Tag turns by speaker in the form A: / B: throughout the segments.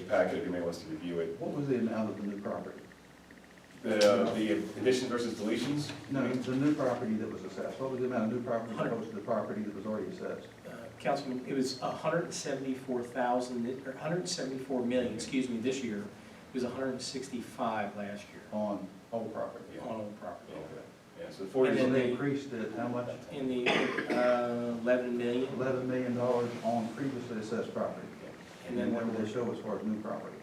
A: packet if anybody wants to review it.
B: What was the amount of the new property?
A: The, uh, the additions versus deletions?
B: No, the new property that was assessed, what was the amount of new property opposed to the property that was already assessed?
C: Uh, Councilman, it was hundred and seventy-four thousand, or hundred and seventy-four million, excuse me, this year. It was hundred and sixty-five last year
B: On old property?
A: Yeah.
C: on old property.
A: Yeah, so the
B: And
A: forty,
B: then
C: then
B: they
C: they-
B: increased it, how much?
C: In the uh, eleven million,
B: Eleven million dollars on previously assessed property.
C: and then
B: what do
C: there
B: they show as far as new property?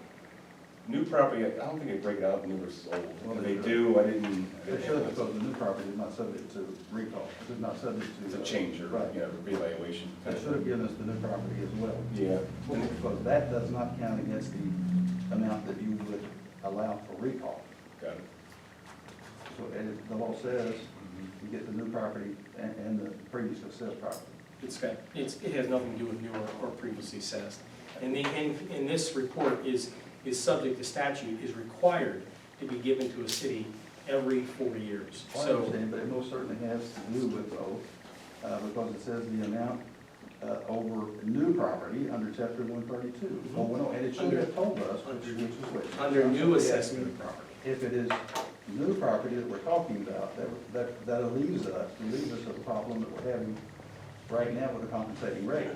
A: new property, I don't think they break it out, new versus old.
B: Well,
A: If
B: they
A: they
B: do.
A: do, I didn't. I
B: They
A: didn't
B: show that
A: have it.
B: the new property is not subject to recall, it's not subject to. uh,
A: It's a change or,
B: Right.
A: you know, revaluation.
B: They should have given us the new property as well.
A: Yeah.
B: Because that does not count against the amount that you would allow for recall.
A: Got it.
B: So, and the law says you get the new property and, and the previous assessed property.
C: It's got, it's, it has nothing to do with new or- or previously assessed. And the, and, and this report is, is subject to statute, is required to be given to a city every four years.
B: I
C: So,
B: understand, but it most certainly has to do with both, uh, because it says the amount, uh, over new property under chapter one thirty-two.
C: Mhm.
B: Well, no, and it should have
C: Under-
B: told us which is which.
C: under new assessment of property.
B: If it is new property that we're talking about, that, that, that leaves us, leaves us with a problem that we're having right now with a compensating rate.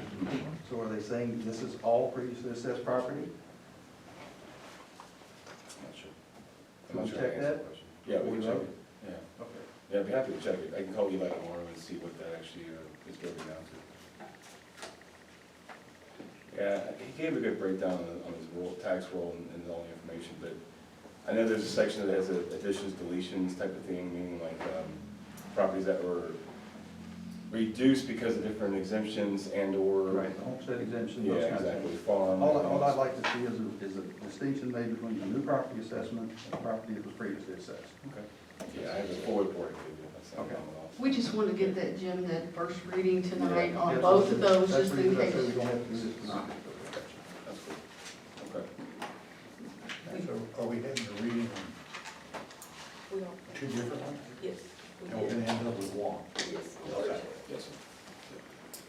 B: So are they saying this is all previously assessed property?
A: I'm not sure. I'm
B: Can
A: not
B: we
A: sure I
B: check
A: answered the
B: that?
A: question. Yeah, we can check it, yeah.
B: Okay.
A: Yeah, I'd be happy to check it. I can call Eli tomorrow and see what that actually uh, is broken down to. Yeah, he gave a good breakdown on- on his roll, tax roll and- and all the information, but I know there's a section that has a additions, deletions type of thing, meaning like um, properties that were reduced because of different exemptions and/or.
B: Right, the homestead exemption,
A: Yeah,
B: those kinds of things.
A: exactly, farm.
B: All, I- all I'd like to see is a, is a distinction made between the new property assessment and the property that was previously assessed.
A: Okay. Yeah, I have a full report. if you do. That's not a
B: Okay.
A: problem at all.
D: We just want to give that, Jim, that first reading tonight
B: Yeah,
D: on
B: that's
D: both of
B: what-
D: those,
B: that's
D: just
B: the
D: in
B: reason I
D: case.
B: said we don't have to do this tonight.
A: That's cool. Okay.
E: So are we having a reading on
F: We don't,
E: two different ones?
F: yes. we
E: And we're
F: did.
E: gonna end up with one?
F: Yes.
A: Yes, sir.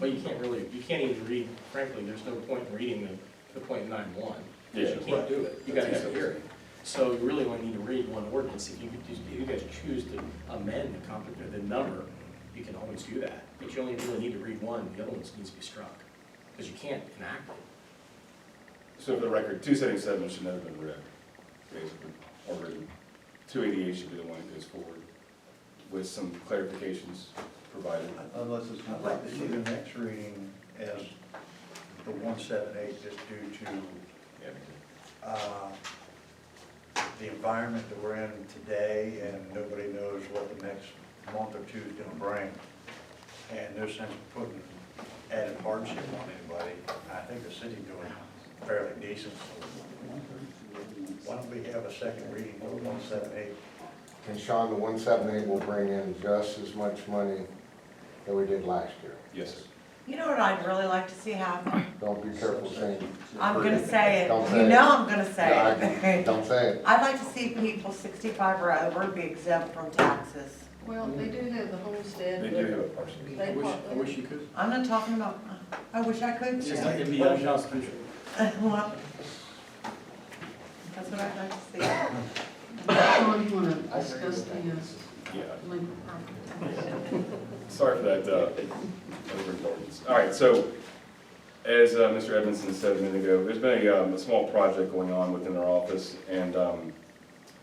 C: But you can't really, you can't even read, frankly, there's no point in reading the, the point nine one.
A: Yeah.
C: You can't do it, you gotta
A: That's
C: have a hearing. So you really only need to read one ordinance, if you, could just- if you guys choose to amend the comp, the number, you can always do that. But you only really need to read one, the other one needs to be struck, because you can't enact it.
A: So for the record, two seventy-seven should never have been read, basically, or written. Two eighty-eight should be the one that goes forward with some clarifications provided.
B: Unless it's not
E: I'd like to see the next reading as the one seven eight, just due to,
A: Yeah.
E: uh, the environment that we're in today, and nobody knows what the next month or two is gonna bring. And no sense putting added hardship on anybody. I think the city's doing fairly decent. Why don't we have a second reading of one seven eight?
G: And Sean, the one seven eight will bring in just as much money that we did last year.
A: Yes, sir.
H: You know what I'd really like to see happen?
G: Don't be careful saying,
H: I'm gonna say it,
G: Don't say
H: you
G: it.
H: know I'm gonna say it.
G: don't say it.
H: I'd like to see people sixty-five or over be exempt from taxes.
D: Well, they do have the homestead.
A: They do have a partial.
D: They part-
C: you could.
H: I'm not talking about, I wish I could.
C: It's just like it'd be unconstitutional.
H: Well, That's what I'd like to see.
D: John, you want to discuss the uh,
A: Yeah.
D: Lincoln property?
A: Sorry for that uh, overindulgence. All right, so as uh, Mr. Edmondson said a minute ago, there's been a um, a small project going on within our office, and um,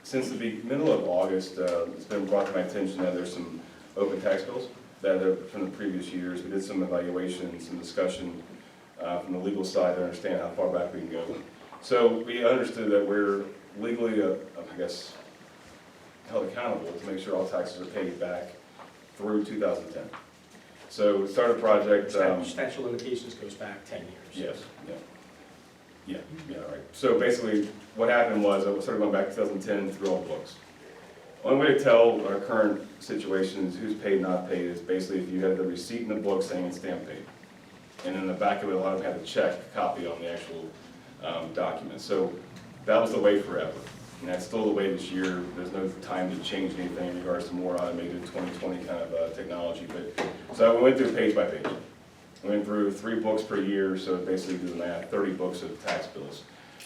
A: since the be- middle of August, uh, it's been brought to my attention that there's some open tax bills that are from the previous years. We did some evaluation, some discussion uh, from the legal side to understand how far back we can go. So we understood that we're legally, uh, I guess, held accountable to make sure all taxes are paid back through 2010. So we started a project. um,
C: Stat- Statute of limitations goes back ten years.
A: Yes, yeah. Yeah, yeah, all right. So basically, what happened was, I was sort of going back to 2010 through all the books. One way to tell our current situation is who's paid, not paid, is basically if you have the receipt in the book saying it's stamp paid. And in the back of it, a lot of them had a check copy on the actual um, document. So that was the way forever. And that's still the way this year. There's no time to change anything in regards to more automated 2020 kind of uh, technology. But, so I went through page by page. Went through three books per year, so basically do the math, thirty books of tax bills.